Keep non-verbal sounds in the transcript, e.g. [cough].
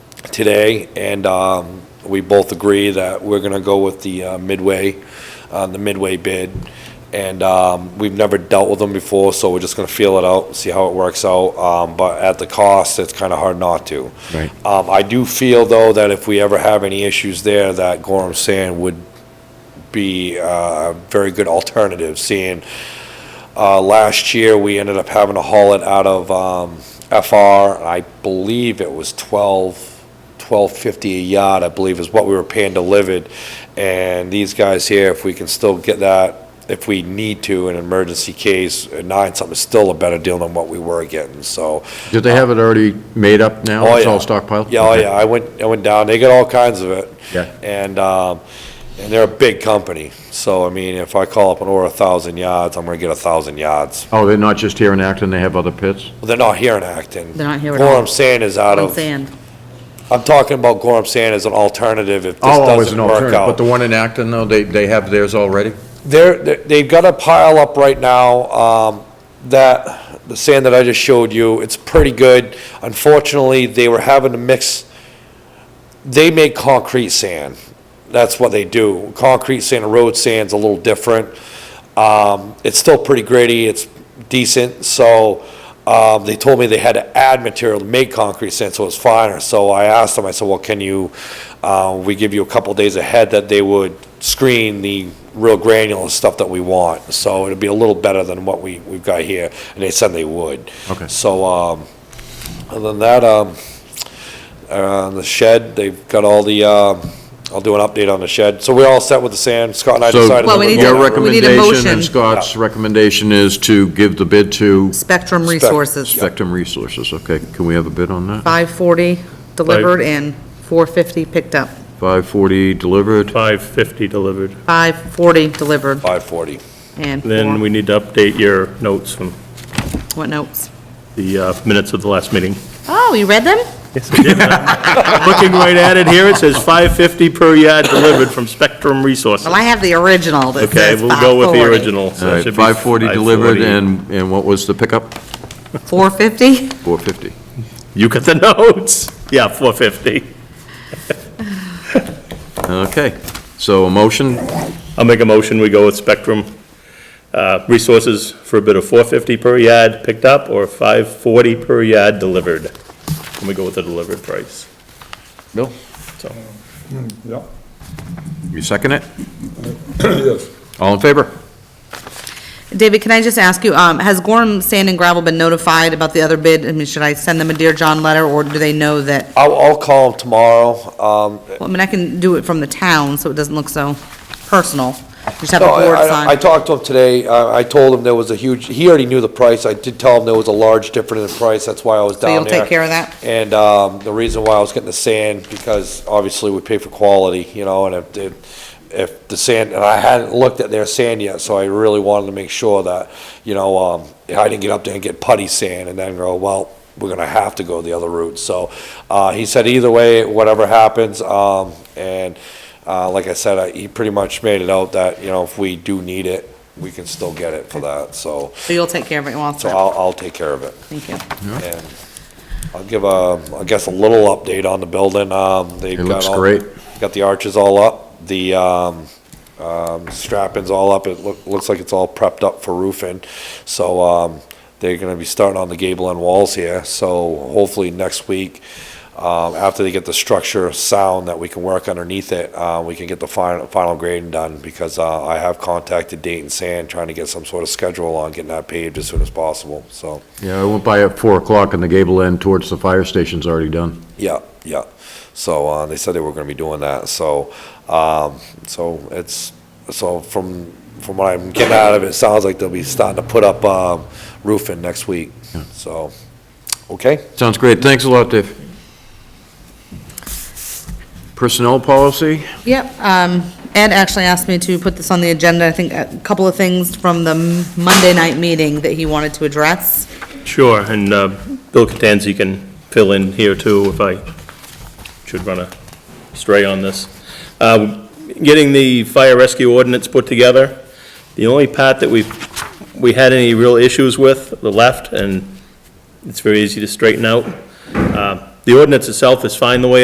today, and um, we both agree that we're going to go with the uh, Midway, uh, the Midway bid. And um, we've never dealt with them before, so we're just going to feel it out, see how it works out. Um, But at the cost, it's kind of hard not to. Right. Um, I do feel, though, that if we ever have any issues there, that Gorham Sand would be uh, a very good alternative, seeing uh, last year, we ended up having to haul it out of um, FR, and I believe it was 12, 1250 a yard, I believe is what we were paying delivered. And these guys here, if we can still get that, if we need to in an emergency case, uh, nine something is still a better deal than what we were getting, so. Do they have it already made up now? Oh, It's all yeah. stockpiled? Yeah, oh, Okay. yeah, I went, I went down, they got all kinds of it. Yeah. And, um, and they're a big company, so, I mean, if I call up and order a thousand yards, I'm gonna get a thousand yards. Oh, they're not just here in Acton, they have other pits? Well, they're not here in Acton. They're not here at all. Gorham Sand is out I'm of, saying, I'm talking about Gorham Sand as an alternative if this Oh, as doesn't an work alternative, but the out. one in Acton, though, they, they have theirs already? They're, they're- they've got a pile up right now, um, that, the sand that I just showed you, it's pretty good. Unfortunately, they were having to mix, they make concrete sand. That's what they do. Concrete sand and road sand's a little different. Um, it's still pretty gritty, it's decent, so, um, they told me they had to add material to make concrete sand, so it's finer. So I asked them, I said, well, can you, uh, we give you a couple days ahead that they would screen the real granular stuff that we want. So it'd be a little better than what we, we've got here, and they said they would. Okay. So, um, other than that, um, uh, the shed, they've got all the, um, I'll do an update on the shed. So we're all set with the sand, Scott and I decided. Well, So we need- to your we need a recommendation motion. and Scott's recommendation is to give the bid to Spectrum Resources, Spectrum Resources, okay? Can we have a bid on that? 540 delivered and 450 picked up. 540 delivered, 550 delivered. 540 delivered Five forty. and Then four, we need to update your notes from what notes? the uh, minutes of the last meeting. [laughs] Oh, you read them? Looking right at it here, it says 550 per yard delivered from Spectrum Resources. Well, I have the original that Okay, says we'll go with the 540. original. so all it right, should be 540 uh, delivered, and, 540. and what was the pickup? 450? 450. You got the [laughs] notes. Yeah, 450. Okay, so a motion, I'll make a motion, we go with Spectrum uh, Resources for a bid of 450 per yard picked up or 540 per yard delivered. And we go with the delivered price, Bill, so. Yeah, you second it? yes. All in favor? David, can I just ask you, um, has Gorham Sand and Gravel been notified about the other bid? I mean, should I send them a Dear John letter or do they know that, I'll, I'll call him tomorrow. Um, well, I mean, I can do it from the town so it doesn't look so personal. Just have a No, I- board I, I sign. talked to him today, Uh, I, I told him there was a huge, he already knew the price, I did tell him there was a large difference in price, that's why I was So you'll down there. take care of that? And, um, the reason why I was getting the sand, because obviously we pay for quality, you know, and if, if, if the sand, and I hadn't looked at their sand yet, so I really wanted to make sure that, you know, um, I didn't get up there and get putty sand and then go, well, we're gonna have to go the other route, so, uh, he said either way, whatever happens, um, and, uh, like I said, I, he pretty much made it out that, you know, if we do need it, we can still get it for that, so, So you'll take care of it once, so I'll, I'll take care of it. thank you. And I'll give a, I guess, a little update on the building. Um, they've It got looks all- great. Got the arches all up, the, um, um, strapping's all up. It look, looks like it's all prepped up for roofing. So, um, they're gonna be starting on the gable end walls here. So hopefully next week, um, after they get the structure sound that we can work underneath it, uh, we can get the final, final grading done because, uh, I have contacted Dayton Sand trying to get some sort of schedule on getting that paved as soon as possible, so. Yeah, I went by at 4 o'clock and the gable end towards the fire station's already done. Yeah, yeah. So, uh, they said they were gonna be doing that, so, um, so it's, so from, from what I'm getting out of it, it sounds like they'll be starting to put up, um, roofing next week, so, okay? Sounds great, thanks a lot, Dave. Personnel policy, Yep, um, Ed actually asked me to put this on the agenda, I think a couple of things from the Monday night meeting that he wanted to address. Sure, and uh, Bill Catanzi can fill in here too if I should run astray on this. Uh, Getting the fire rescue ordinance put together, the only part that we, we had any real issues with, the left, and it's very easy to straighten out. Uh, The ordinance itself is fine the way